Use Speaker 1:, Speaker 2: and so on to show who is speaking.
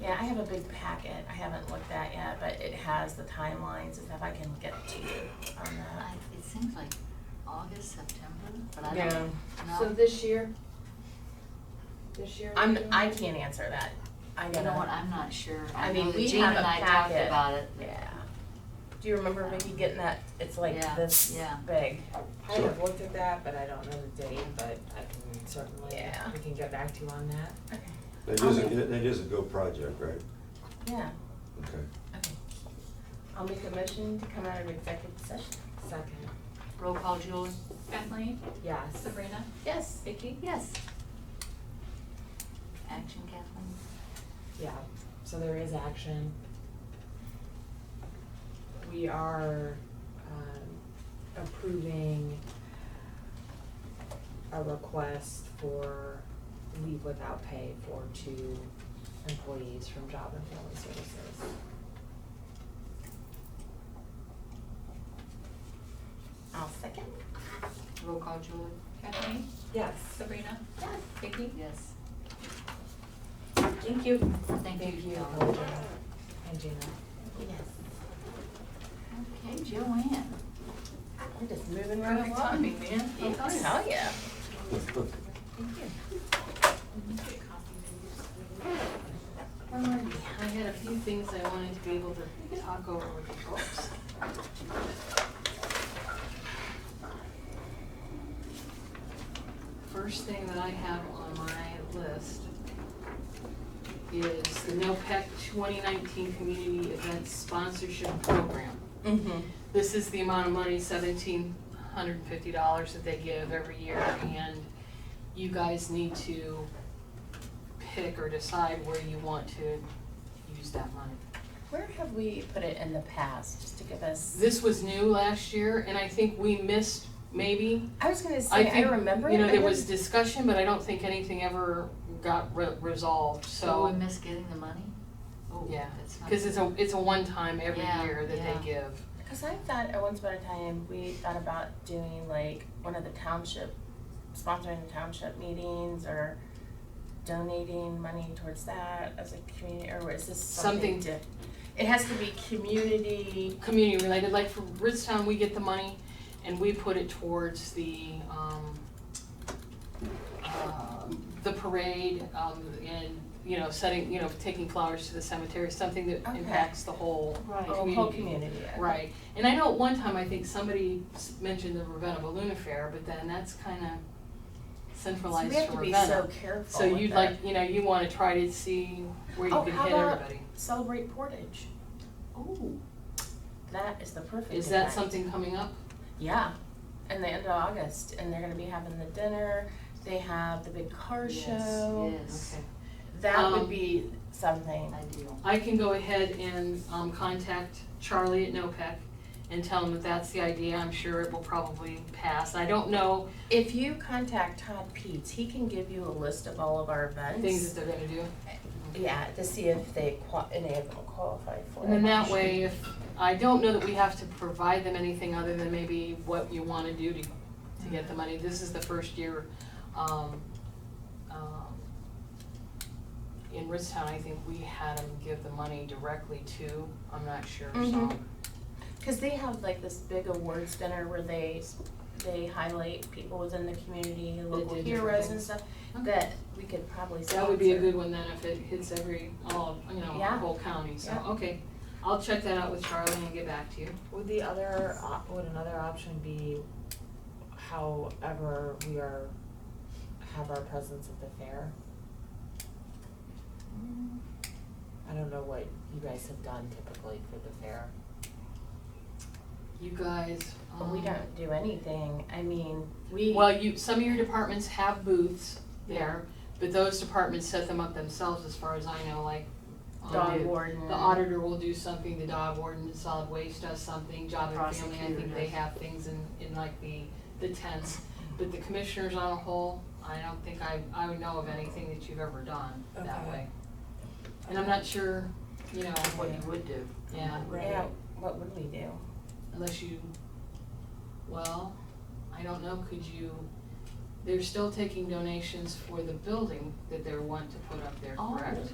Speaker 1: Yeah, I have a big packet. I haven't looked at yet, but it has the timelines and stuff. I can get to you on
Speaker 2: I,
Speaker 1: that.
Speaker 2: it seems like August, September, but I
Speaker 1: Yeah.
Speaker 2: don't know.
Speaker 3: So this year? This year?
Speaker 1: I'm,
Speaker 3: we're doing
Speaker 1: I
Speaker 3: it?
Speaker 1: can't answer that. I
Speaker 2: You know what,
Speaker 1: gotta,
Speaker 2: I'm not sure.
Speaker 1: I
Speaker 2: know
Speaker 1: mean,
Speaker 2: that
Speaker 1: we
Speaker 2: Gene
Speaker 1: have a
Speaker 2: and I talked
Speaker 1: packet.
Speaker 2: about it. but-
Speaker 1: yeah. Do you remember Vicky getting that? It's like
Speaker 2: Yeah,
Speaker 1: this
Speaker 2: yeah.
Speaker 1: big.
Speaker 4: I have looked at that, but I don't know the date, but I can certainly,
Speaker 1: Yeah.
Speaker 4: we can get back to you on that.
Speaker 5: That is, a- that is a go project, right?
Speaker 1: Yeah,
Speaker 5: Okay.
Speaker 1: okay. I'll make a motion to come out of executive session.
Speaker 4: Second,
Speaker 2: Roll call, Julie?
Speaker 6: Kathleen,
Speaker 4: yes.
Speaker 6: Sabrina,
Speaker 1: Yes.
Speaker 6: Vicky.
Speaker 2: Yes. Action, Kathleen?
Speaker 4: Yeah, so there is action. We are, um, approving a request for leave without pay for two employees from Job and Family Services.
Speaker 1: I'll second.
Speaker 2: Roll call, Julie?
Speaker 6: Kathleen,
Speaker 4: Yes.
Speaker 6: Sabrina,
Speaker 1: Yes.
Speaker 6: Vicky.
Speaker 2: Yes.
Speaker 4: Thank you.
Speaker 2: Thank you,
Speaker 4: Thank you,
Speaker 2: Joe.
Speaker 4: Elijah and Gina.
Speaker 1: Yes.
Speaker 2: Okay, Joanne.
Speaker 1: We're just moving right along.
Speaker 6: man.
Speaker 2: Yes.
Speaker 1: Hell yeah.
Speaker 7: Um, I had a few things I wanted to be able to talk over with the folks. First thing that I have on my list is the NOPEC 2019 Community Events Sponsorship Program.
Speaker 1: Mm-hmm.
Speaker 7: This is the amount of money, seventeen hundred and fifty dollars that they give every year, and you guys need to pick or decide where you want to use that money.
Speaker 1: Where have we put it in the past, just to give us?
Speaker 7: This was new last year, and I think we missed maybe.
Speaker 1: I was gonna say, I
Speaker 7: think,
Speaker 1: remember it.
Speaker 7: You know,
Speaker 1: I
Speaker 7: there was
Speaker 1: didn't-
Speaker 7: discussion, but I don't think anything ever got re- resolved,
Speaker 2: So we
Speaker 7: so,
Speaker 2: miss getting the money? Oh,
Speaker 7: yeah.
Speaker 2: that's not-
Speaker 7: Cause it's a, it's a one-time every
Speaker 2: Yeah,
Speaker 7: year that
Speaker 2: yeah.
Speaker 7: they give.
Speaker 1: Cause I thought at once upon a time, we thought about doing like one of the township, sponsoring the township meetings or donating money towards that as a community, or is this something
Speaker 7: Something-
Speaker 1: different? It has to be community,
Speaker 7: community related, like for Ridgetown, we get the money and we put it towards the, um, uh, the parade, um, and, you know, setting, you know, taking flowers to the cemetery, something that
Speaker 1: Okay.
Speaker 7: impacts the whole
Speaker 2: Right.
Speaker 1: oh,
Speaker 7: community.
Speaker 1: whole community. I-
Speaker 7: Right, and I know at one time, I think somebody s- mentioned the Ravenna Balloon Affair, but then that's kinda
Speaker 1: So we
Speaker 7: centralized
Speaker 1: have
Speaker 7: to
Speaker 1: to be so
Speaker 7: Ravenna.
Speaker 1: careful
Speaker 7: So
Speaker 1: with
Speaker 7: you'd
Speaker 1: that.
Speaker 7: like, you know, you wanna try to see where you
Speaker 1: Oh,
Speaker 7: can
Speaker 1: how
Speaker 7: hit
Speaker 1: about-
Speaker 7: everybody.
Speaker 1: Celebrate Portage,
Speaker 2: Oh,
Speaker 1: that is the perfect
Speaker 7: Is that
Speaker 1: event.
Speaker 7: something coming up?
Speaker 1: Yeah, in the end of August, and they're gonna be having the dinner. They have the big car
Speaker 2: yes,
Speaker 1: show.
Speaker 2: Yes,
Speaker 1: That
Speaker 7: Um,
Speaker 1: would be something.
Speaker 2: ideal.
Speaker 7: I can go ahead and um, contact Charlie at NOPEC and tell him that that's the idea. I'm sure it will probably pass. I don't know
Speaker 1: If you contact Todd Peets, he can give you a list of all of our events.
Speaker 7: things that they're gonna do.
Speaker 1: Yeah, to see if they qua- any of them qualify for it.
Speaker 7: And then that way, if, I don't know that we have to provide them anything other than maybe what you wanna do to, to get the money. This is the first year, um, um, in Ridgetown, I think we had them give the money directly to, I'm not sure, so.
Speaker 1: Mhm. Cause they have like this big awards dinner where they they highlight people within the community, local
Speaker 7: do different
Speaker 1: heroes and
Speaker 7: things.
Speaker 1: stuff.
Speaker 7: Okay.
Speaker 1: That we could probably.
Speaker 7: That would be a
Speaker 1: sponsor.
Speaker 7: good one then if it hits every, all, of, you know, the
Speaker 1: Yeah.
Speaker 7: whole county, so,
Speaker 1: Yeah.
Speaker 7: okay. I'll check that out with Charlie and get back to you.
Speaker 4: Would the other, op- would another option be however we are, have our presence at the fair? I don't know what you guys have done typically for the fair.
Speaker 7: You guys,
Speaker 1: But we
Speaker 7: um,
Speaker 1: don't do anything. I mean, we.
Speaker 7: Well, you, some of your departments have booths there, but those departments set them up themselves as far as I know, like. um,
Speaker 1: dog warden.
Speaker 7: The auditor will do something, the dog warden, solid waste does something, job and family, I think they
Speaker 2: Prosecutor.
Speaker 7: have things in, in like the, the tents. But the commissioners on a whole, I don't think I, I would know of anything that you've ever done that
Speaker 4: Okay.
Speaker 7: way. And I'm not sure, you know,
Speaker 2: What you would do.
Speaker 7: yeah,
Speaker 1: Yeah, what would we do?
Speaker 7: unless you, well, I don't know, could you, they're still taking donations for the building that they want to put up there,
Speaker 2: Oh.
Speaker 7: correct?